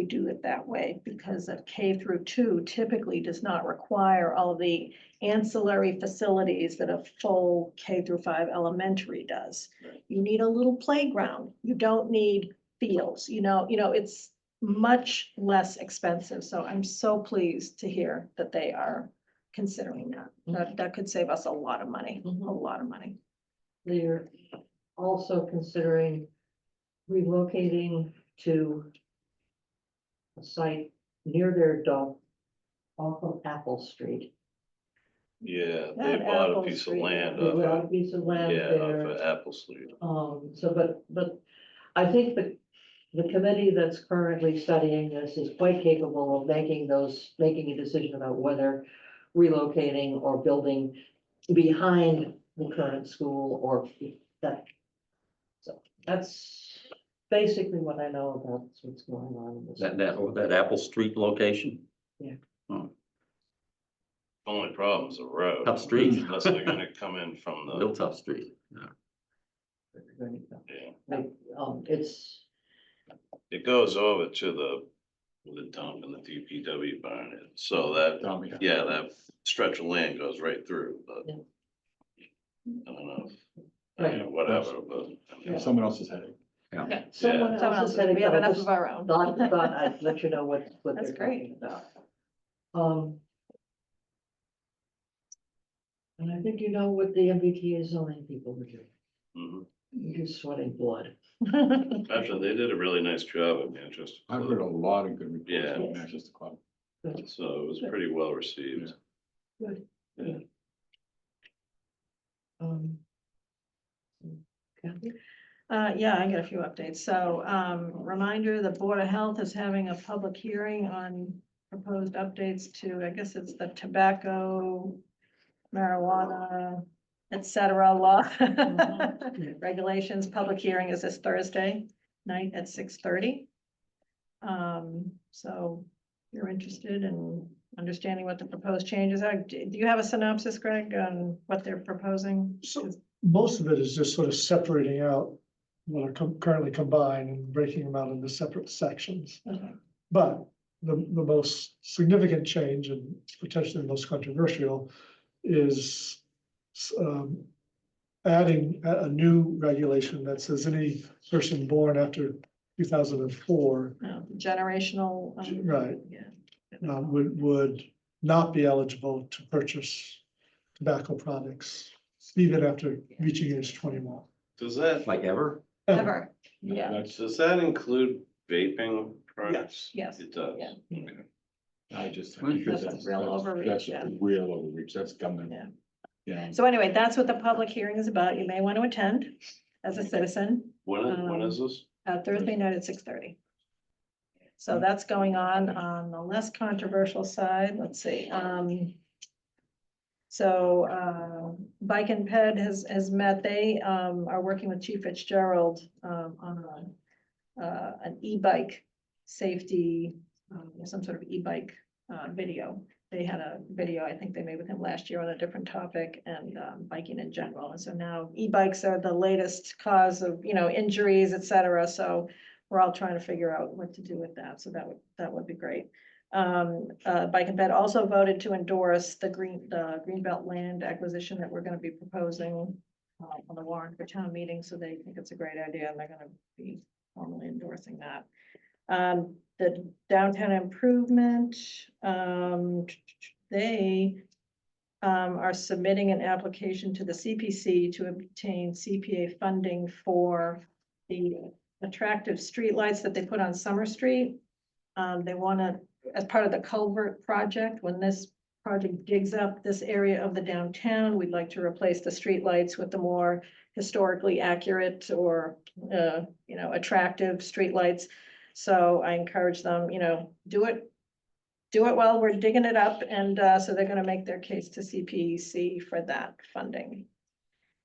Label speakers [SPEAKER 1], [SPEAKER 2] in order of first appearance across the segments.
[SPEAKER 1] we do it that way because a K through two typically does not require all the ancillary facilities that a full K through five elementary does.
[SPEAKER 2] Right.
[SPEAKER 1] You need a little playground. You don't need fields, you know, you know, it's much less expensive. So I'm so pleased to hear that they are considering that. That, that could save us a lot of money, a
[SPEAKER 3] Mhm.
[SPEAKER 1] lot of money.
[SPEAKER 3] They're also considering relocating to a site near their dump off of Apple Street.
[SPEAKER 2] Yeah, they
[SPEAKER 1] That
[SPEAKER 2] bought a
[SPEAKER 1] Apple
[SPEAKER 2] piece of
[SPEAKER 1] Street,
[SPEAKER 2] land
[SPEAKER 3] They bought
[SPEAKER 2] off,
[SPEAKER 3] a piece of
[SPEAKER 2] of-
[SPEAKER 3] land
[SPEAKER 2] yeah, off
[SPEAKER 3] there.
[SPEAKER 2] of Apple Street.
[SPEAKER 3] Um, so but, but I think the, the committee that's currently studying this is quite capable of making those, making a decision about whether relocating or building behind the current school or that. So that's basically what I know about what's going on in this.
[SPEAKER 4] That, that, or that Apple Street location,
[SPEAKER 2] Only problem is the road.
[SPEAKER 4] Tough street.
[SPEAKER 2] Unless they're gonna come in from the,
[SPEAKER 4] Hilltop Street.
[SPEAKER 2] yeah,
[SPEAKER 3] Like, um, it's,
[SPEAKER 2] it goes over to the, the dump and the DPW barn, and so that, yeah, that stretch of land goes right through, but.
[SPEAKER 3] Yeah.
[SPEAKER 2] I don't know, I
[SPEAKER 3] Right.
[SPEAKER 2] mean, whatever, but. I mean,
[SPEAKER 3] Yeah.
[SPEAKER 5] Someone else's headache.
[SPEAKER 4] Yeah.
[SPEAKER 3] someone
[SPEAKER 1] Someone
[SPEAKER 3] else
[SPEAKER 1] else,
[SPEAKER 3] is heading.
[SPEAKER 1] we have enough of our own.
[SPEAKER 3] thought, thought I'd let you know what, what
[SPEAKER 1] That's
[SPEAKER 3] they're talking
[SPEAKER 1] great.
[SPEAKER 3] about. Um. And I think you know what the MBTA zoning people were doing.
[SPEAKER 2] mhm.
[SPEAKER 3] You're sweating blood.
[SPEAKER 2] Actually, they did a really nice job at Manchester.
[SPEAKER 5] I've heard a lot of good
[SPEAKER 2] Yeah.
[SPEAKER 5] reports from Manchester Club.
[SPEAKER 2] So it was pretty well received.
[SPEAKER 3] Um. Kathy?
[SPEAKER 1] Uh, yeah, I got a few updates. So, um, reminder, the Board of Health is having a public hearing on proposed updates to, I guess it's the tobacco, marijuana, et cetera law.
[SPEAKER 3] Mm-hmm.
[SPEAKER 1] Regulations, public hearing is this Thursday night at six thirty. Um, so if you're interested in understanding what the proposed changes are. Do do you have a synopsis, Greg, on what they're proposing?
[SPEAKER 6] So most of it is just sort of separating out what are com- currently combined and breaking them out into separate sections.
[SPEAKER 1] Okay.
[SPEAKER 6] But the, the most significant change and potentially the most controversial is um, adding a, a new regulation that says any person born after two thousand and four
[SPEAKER 1] No, um, Generational. um,
[SPEAKER 6] Right.
[SPEAKER 1] Yeah.
[SPEAKER 6] um, would, would not be eligible to purchase tobacco products even after reaching age twenty-one.
[SPEAKER 2] Does that,
[SPEAKER 4] Like ever?
[SPEAKER 1] Ever, yeah,
[SPEAKER 5] That's,
[SPEAKER 2] does that include vaping products?
[SPEAKER 1] Yes.
[SPEAKER 2] It does.
[SPEAKER 1] Yeah.
[SPEAKER 2] Okay.
[SPEAKER 5] I just.
[SPEAKER 4] Well,
[SPEAKER 5] think
[SPEAKER 1] that's a
[SPEAKER 5] that's-
[SPEAKER 1] real
[SPEAKER 5] that's-
[SPEAKER 1] overreach,
[SPEAKER 5] that's
[SPEAKER 1] yeah.
[SPEAKER 5] Real overreach, that's government.
[SPEAKER 1] Yeah.
[SPEAKER 5] Yeah.
[SPEAKER 1] so anyway, that's what the public hearing is about, you may want to attend as a citizen,
[SPEAKER 2] When, is- when is
[SPEAKER 1] Um,
[SPEAKER 2] this?
[SPEAKER 1] uh, Thursday night at six thirty. So that's going on, on the less controversial side, let's see, um. So, uh, Bike and Ped has, has met, they, um, are working with Chief Fitzgerald, um, on a, uh, an e-bike safety, um, some sort of e-bike, uh, video. They had a video, I think they made with him last year on a different topic and, um, biking in general. And so now e-bikes are the latest cause of, you know, injuries, et cetera. So we're all trying to figure out what to do with that. So that would, that would be great. Um, uh, Bike and Ped also voted to endorse the green, the Greenbelt land acquisition that we're gonna be proposing uh, on the warrant for town meeting, so they think it's a great idea and they're gonna be formally endorsing that. Um, the downtown improvement, um, they um, are submitting an application to the CPC to obtain CPA funding for the attractive streetlights that they put on Summer Street. Um, they wanna, as part of the culvert project, when this project digs up this area of the downtown, we'd like to replace the streetlights with the more historically accurate or, uh, you know, attractive streetlights. So I encourage them, you know, do it do it while we're digging it up, and uh, so they're gonna make their case to CPC for that funding.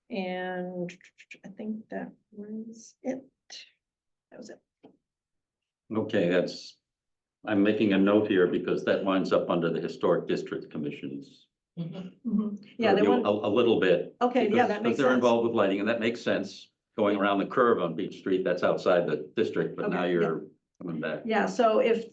[SPEAKER 1] And I think that was it. That was it.
[SPEAKER 4] Okay, that's, I'm making a note here because that winds up under the Historic District Commission's.
[SPEAKER 1] Mm-hmm. Yeah, they
[SPEAKER 4] purview
[SPEAKER 1] want,
[SPEAKER 4] A, a little bit.
[SPEAKER 1] okay, yeah, that
[SPEAKER 4] because- because
[SPEAKER 1] makes
[SPEAKER 4] They're
[SPEAKER 1] sense.
[SPEAKER 4] involved with lighting and that makes sense, going around the curve on Beach Street, that's outside the district, but now
[SPEAKER 1] Okay, yeah.
[SPEAKER 4] you're coming back.
[SPEAKER 1] Yeah, so if